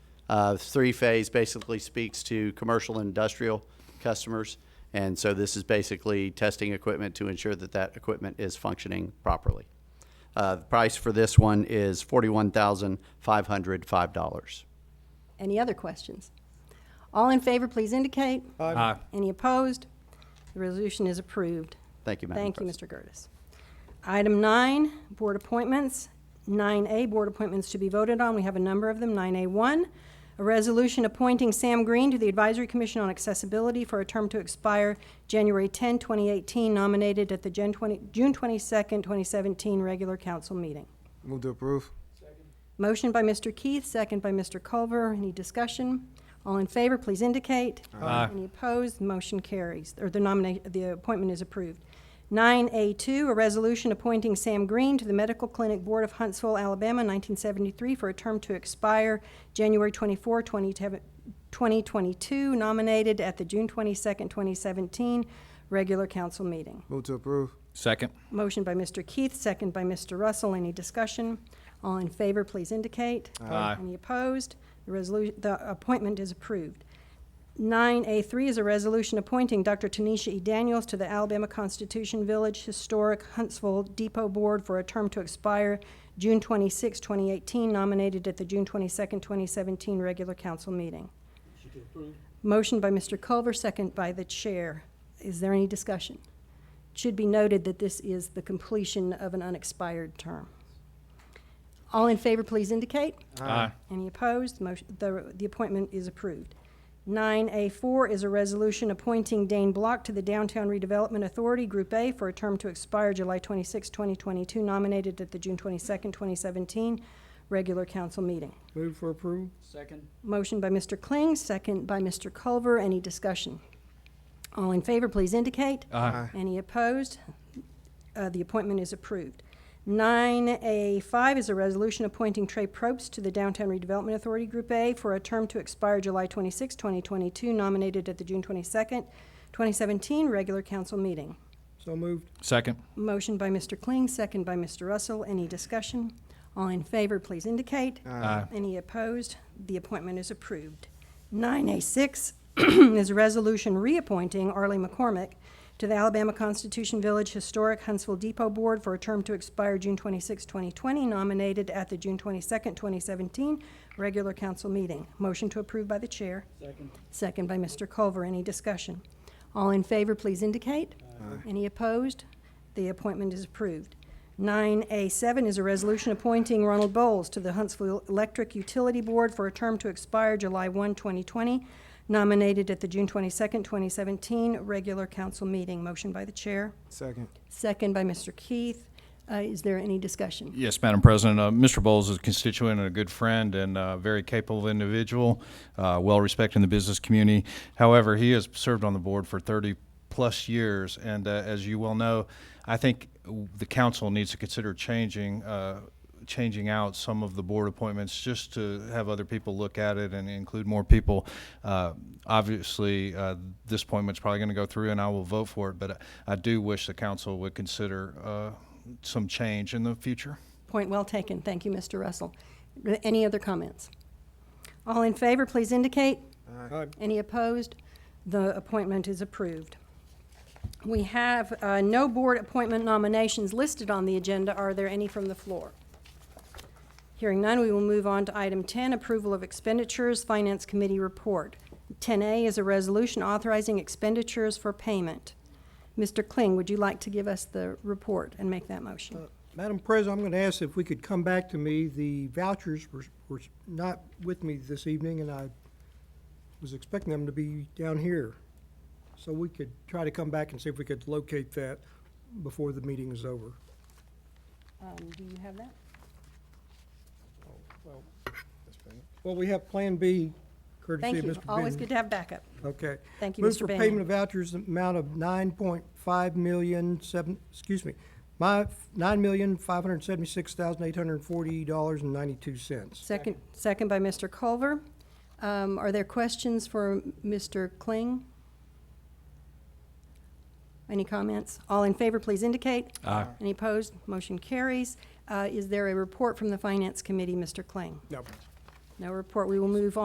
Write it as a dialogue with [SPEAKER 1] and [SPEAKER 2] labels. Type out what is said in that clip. [SPEAKER 1] Uh, Three-phase basically speaks to commercial and industrial customers, and so this is basically testing equipment to ensure that that equipment is functioning properly. Uh, The price for this one is $41,505.
[SPEAKER 2] Any other questions? All in favor, please indicate.
[SPEAKER 3] Aye.
[SPEAKER 2] Any opposed? The resolution is approved.
[SPEAKER 1] Thank you, Madam
[SPEAKER 2] Thank you,
[SPEAKER 1] President.
[SPEAKER 2] Mr. Curtis. Item nine, board appointments. 9A, board appointments to be voted on. We have a number of them. 9A1, a resolution appointing Sam Green to the Advisory Commission on Accessibility for a term to expire January 10, 2018, nominated at the Gen 20 June 22nd, 2017 regular council meeting.
[SPEAKER 3] Move to approve.
[SPEAKER 2] Motion by Mr. Keith, second by Mr. Culver. Any discussion? All in favor, please indicate.
[SPEAKER 3] Aye.
[SPEAKER 2] Any opposed? Motion carries, or the nomination, the appointment is approved. 9A2, a resolution appointing Sam Green to the Medical Clinic Board of Huntsville, Alabama, 1973, for a term to expire January 24, 2022, nominated at the June 22nd, 2017 regular council meeting.
[SPEAKER 3] Move to approve.
[SPEAKER 4] Second.
[SPEAKER 2] Motion by Mr. Keith, second by Mr. Russell. Any discussion? All in favor, please indicate.
[SPEAKER 4] Aye.
[SPEAKER 2] Any opposed? The resolution, the appointment is approved. 9A3 is a resolution appointing Dr. Tanisha E. Daniels to the Alabama Constitution Village Historic Huntsville Depot Board for a term to expire June 26, 2018, nominated at the June 22, 2017 regular council meeting. Motion by Mr. Culver, second by the chair. Is there any discussion? It Should be noted that this is the completion of an unexpired term. All in favor, please indicate.
[SPEAKER 4] Aye.
[SPEAKER 2] Any opposed? Motion, the, the appointment is approved. Nine A four is a resolution appointing Dane Block to the Downtown Redevelopment Authority, Group A, for a term to expire July 26, 2022, nominated at the June 22, 2017 regular council meeting.
[SPEAKER 3] Move for approval.
[SPEAKER 2] Motion by Mr. Kling, second by Mr. Culver. Any discussion? All in favor, please indicate.
[SPEAKER 4] Aye.
[SPEAKER 2] Any opposed? Uh, The appointment is approved. 9A5 is a resolution appointing Trey Probst to the Downtown Redevelopment Authority Group A for a term to expire July 26, 2022, nominated at the June 22nd, 2017 regular council meeting.
[SPEAKER 3] So moved.
[SPEAKER 4] Second.
[SPEAKER 2] Motion by Mr. Kling, second by Mr. Russell. Any discussion? All in favor, please indicate.
[SPEAKER 4] Aye.
[SPEAKER 2] Any opposed? The appointment is approved. 9A6 is a resolution reappointing Arlie McCormick to the Alabama Constitution Village Historic Huntsville Depot Board for a term to expire June 26, 2020, nominated at the June 22, 2017 regular council meeting. Motion to approve by the chair. Second. Second by Mr. Culver. Any discussion? All in favor, please indicate. Any opposed? The appointment is approved. 9A7 is a resolution appointing Ronald Bowles to the Huntsville Electric Utility Board for a term to expire July 1, 2020, nominated at the June 22, 2017 regular council meeting. Motion by the chair,
[SPEAKER 3] Second.
[SPEAKER 2] second by Mr. Keith. Uh, Is there any discussion?
[SPEAKER 4] Yes, Madam President. Uh, Mr. Bowles is a constituent and a good friend and a very capable individual, uh, well respected in the business community. However, he has served on the board for 30 plus years, and uh, as you well know, I think the council needs to consider changing. Uh, changing out some of the board appointments just to have other people look at it and include more people. Uh, obviously, uh, this appointment's probably going to go through, and I will vote for it. But I, I do wish the council would consider uh, some change in the future.
[SPEAKER 2] Point well taken. Thank you, Mr. Russell. Th- Any other comments? All in favor, please indicate.
[SPEAKER 3] Aye.
[SPEAKER 2] Any opposed? The appointment is approved. We have uh, no board appointment nominations listed on the agenda. Are there any from the floor? Hearing none, we will move on to item 10, approval of expenditures, Finance Committee report. 10A is a resolution authorizing expenditures for payment. Mr. Kling, would you like to give us the report and make that motion?
[SPEAKER 5] Madam President, I'm going to ask if we could come back to me. The vouchers were, were not with me this evening, and I was expecting them to be down here. So we could try to come back and see if we could locate that before the meeting is over.
[SPEAKER 2] Um, Do you have that?
[SPEAKER 5] Well, we have Plan B courtesy
[SPEAKER 2] Thank
[SPEAKER 5] of Mr.
[SPEAKER 2] you.
[SPEAKER 5] Benton.
[SPEAKER 2] Always good to have backup.
[SPEAKER 5] Okay.
[SPEAKER 2] Thank you,
[SPEAKER 5] Move
[SPEAKER 2] Mr.
[SPEAKER 5] for
[SPEAKER 2] Bannon.
[SPEAKER 5] payment of vouchers, the amount of nine point five million seven, excuse me, my, nine million five hundred seventy-six thousand eight hundred forty dollars and ninety-two cents.
[SPEAKER 2] Second, second by Mr. Culver. Um, Are there questions for Mr. Kling? Any comments? All in favor, please indicate.
[SPEAKER 4] Aye.
[SPEAKER 2] Any opposed? Motion carries. Uh, Is there a report from the Finance Committee, Mr. Kling?
[SPEAKER 5] No.
[SPEAKER 2] No report. We will move on.